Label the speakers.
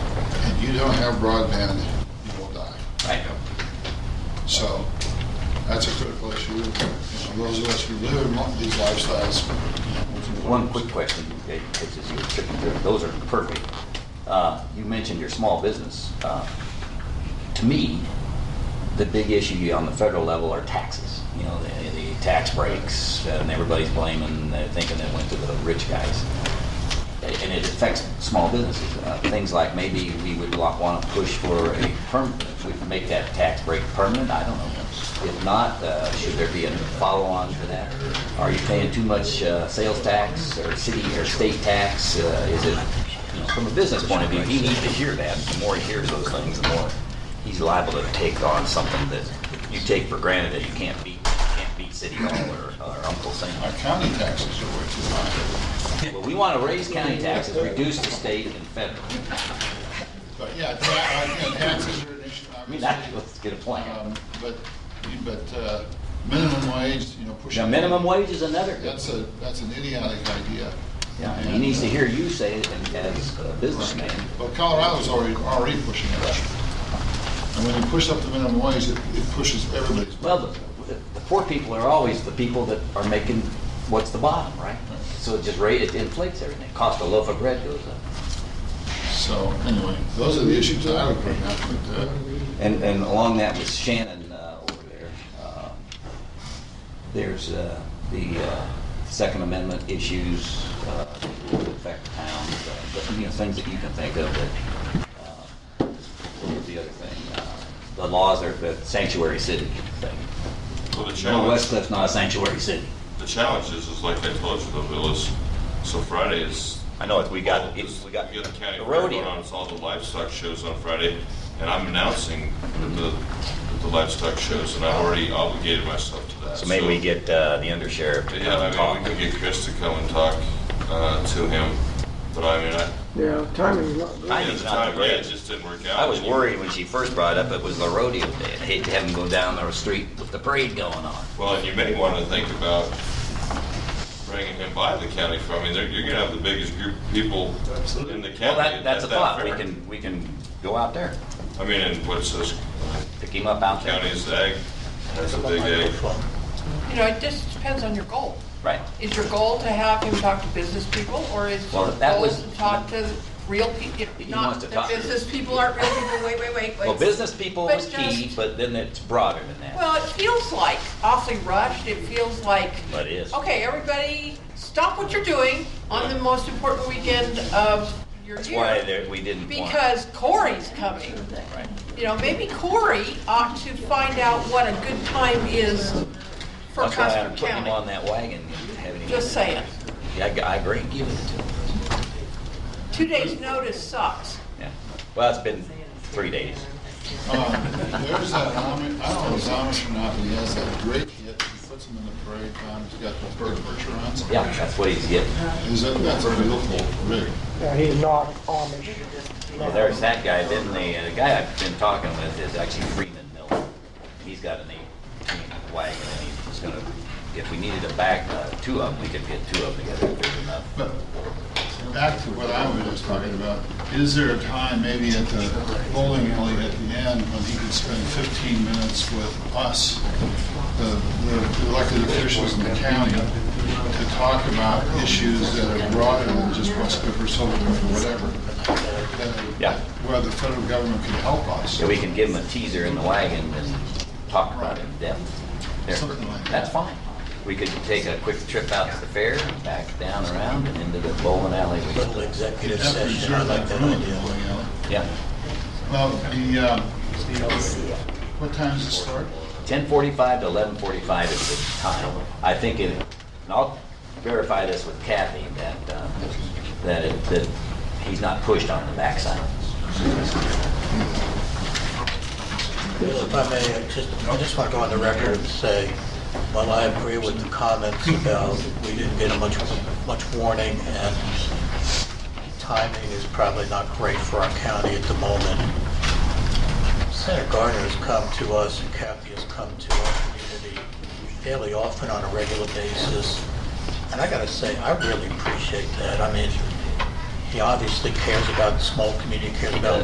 Speaker 1: you don't have broadband, you will die.
Speaker 2: Right.
Speaker 1: So that's a critical issue. You know, Those of us who live in one of these lifestyles.
Speaker 3: One quick question, Dave, which is you were tripping through, it. those are perfect. Uh, You mentioned your small business. Uh, To me, the big issue on the federal level are taxes. You know, the, the tax breaks, and everybody's blaming, they're thinking it went to the rich guys. And it affects small businesses. Uh, Things like maybe we would want to push for a perm, we'd make that tax break permanent, I don't know. If not, uh, should there be a follow-on for that? Are you paying too much uh, sales tax or city or state tax? Uh, Is it, you know, from a business point of view, he needs to hear that. The more he hears those things, the more he's liable to take on something that you take for granted that you can't beat, can't beat City Hall or or Uncle Sam.
Speaker 1: Our county taxes are way too high.
Speaker 3: Well, we want to raise county taxes, reduce the state and federal.
Speaker 1: But yeah, ta- uh, taxes are an issue,
Speaker 3: I mean, that,
Speaker 1: obviously.
Speaker 3: let's get a plan.
Speaker 1: Um, But, but uh, minimum wage, you know, pushing.
Speaker 3: Now, minimum wage is another good.
Speaker 1: That's a, that's an idiotic idea.
Speaker 3: Yeah, and he needs to hear you say it and as a businessman.
Speaker 1: But Colorado's already, already pushing it up. And when you push up the minimum wage, it it pushes everybody's.
Speaker 3: Well, the, the poor people are always the people that are making what's the bottom, right? So it just rate, it inflates everything. Cost of loaf of bread goes up.
Speaker 1: So anyway, those are the issues that I would bring up, but uh,
Speaker 3: And, and along that with Shannon uh, over there, uh, there's uh, the uh, Second Amendment issues uh, that will affect towns, uh, but, you know, things that you can think of that, uh, what was the other thing? Uh, The laws are, the sanctuary city thing.
Speaker 4: Well, the
Speaker 3: No,
Speaker 4: challenge,
Speaker 3: West Cliff's not a sanctuary city.
Speaker 4: the challenge is, is like I told you, the villas, so Friday is.
Speaker 3: I know, it's, we got,
Speaker 4: is-
Speaker 3: it's, we got
Speaker 4: the county
Speaker 3: the
Speaker 4: fair going
Speaker 3: rodeo.
Speaker 4: on, it's all the livestock shows on Friday, and I'm announcing that the, that the livestock shows, and I already obligated myself to that.
Speaker 3: So maybe we get uh, the undersheriff to
Speaker 4: Yeah,
Speaker 3: come and
Speaker 4: I mean,
Speaker 3: talk.
Speaker 4: we could get Chris to come and talk, uh, to him, but I mean, I.
Speaker 5: Yeah, timing's not good.
Speaker 4: at
Speaker 3: Timing's
Speaker 4: the
Speaker 3: not
Speaker 4: time,
Speaker 3: the
Speaker 4: yeah, It
Speaker 3: greatest.
Speaker 4: just didn't work out.
Speaker 3: I was worried when she first brought it up, it was the rodeo day. I'd hate to have him go down the street with the parade going on.
Speaker 4: Well, and you may want to think about bringing him by the county fair. I mean, they're- you're going to have the biggest group of people in the county.
Speaker 3: Well, that, that's a
Speaker 4: at that
Speaker 3: thought, we
Speaker 4: fair.
Speaker 3: can, we can go out there,
Speaker 4: I mean, and what's this
Speaker 3: pick him up out there.
Speaker 4: county's egg? That's a big egg.
Speaker 6: You know, it just depends on your goal.
Speaker 3: Right,
Speaker 6: Is your goal to have him talk to business people, or is
Speaker 3: Well,
Speaker 6: your
Speaker 3: that
Speaker 6: goal
Speaker 3: was-
Speaker 6: to talk to real people?
Speaker 3: He
Speaker 6: Not
Speaker 3: wants to
Speaker 6: that
Speaker 3: talk to-
Speaker 6: business people aren't real people, wait, wait, wait. wait.
Speaker 3: well, business people
Speaker 6: But
Speaker 3: was key,
Speaker 6: just-
Speaker 3: but then it's broader than that.
Speaker 6: Well, it feels like awfully rushed, it feels like,
Speaker 3: But it is.
Speaker 6: okay, everybody, stop what you're doing on the most important weekend of your
Speaker 3: That's why
Speaker 6: year.
Speaker 3: there- we didn't want.
Speaker 6: Because Corey's coming.
Speaker 3: Right.
Speaker 6: You know, maybe Corey ought to find out what a good time is for
Speaker 3: That's why I
Speaker 6: Custer
Speaker 3: put him
Speaker 6: County.
Speaker 3: on that wagon and have him.
Speaker 6: Just saying.
Speaker 3: Yeah, I, I agree, give it to him,
Speaker 6: Two days' notice sucks.
Speaker 3: yeah. Well, it's been three days.
Speaker 1: um, there's that, Amish- I don't know if it's Amish or not, but he has that great hit, he puts them in the parade, um, he's got the bird Bergeron's.
Speaker 3: Yeah, that's what he's getting.
Speaker 1: Is that, that's a beautiful rig.
Speaker 5: Yeah, he's not Amish.
Speaker 3: Well, there's that guy, then the, the guy I've been talking with is actually Freeman Miller. He's got an eighteen wagon and he's just gonna, if we needed a back, uh, two of them, we could get two of them together if there's enough.
Speaker 1: But back to what I was just talking about, is there a time maybe at the bowling alley at the end when he could spend 15 minutes with us, the the elected officials in the county, to talk about issues that are broader than just West Cliff or Silver Cliff or whatever? that-
Speaker 3: Yeah.
Speaker 1: Where the federal government can help us.
Speaker 3: So we can give him a teaser in the wagon and talk about it in depth. There.
Speaker 1: Something like that.
Speaker 3: That's fine. We could take a quick trip out to the fair, back down around and into the bowling alley.
Speaker 7: little executive
Speaker 1: After
Speaker 7: session, I
Speaker 1: reserve that
Speaker 7: like that
Speaker 1: room at
Speaker 7: idea.
Speaker 1: the bowling alley.
Speaker 3: Yeah,
Speaker 1: Well, the, uh, what time does it start?
Speaker 3: ten forty-five to eleven forty-five is the time. I think it, and I'll verify this with Kathy, that, uh, that it, that he's not pushed on the backside.
Speaker 7: Well, If I may, I just, I just want to go on the record and say, while I agree with the comments about we didn't get a much, much warning and timing is probably not great for our county at the moment, Senator Gardner has come to us and Kathy has come to our community fairly often on a regular basis. And I gotta say, I really appreciate that. I mean, he obviously cares about the small community, cares about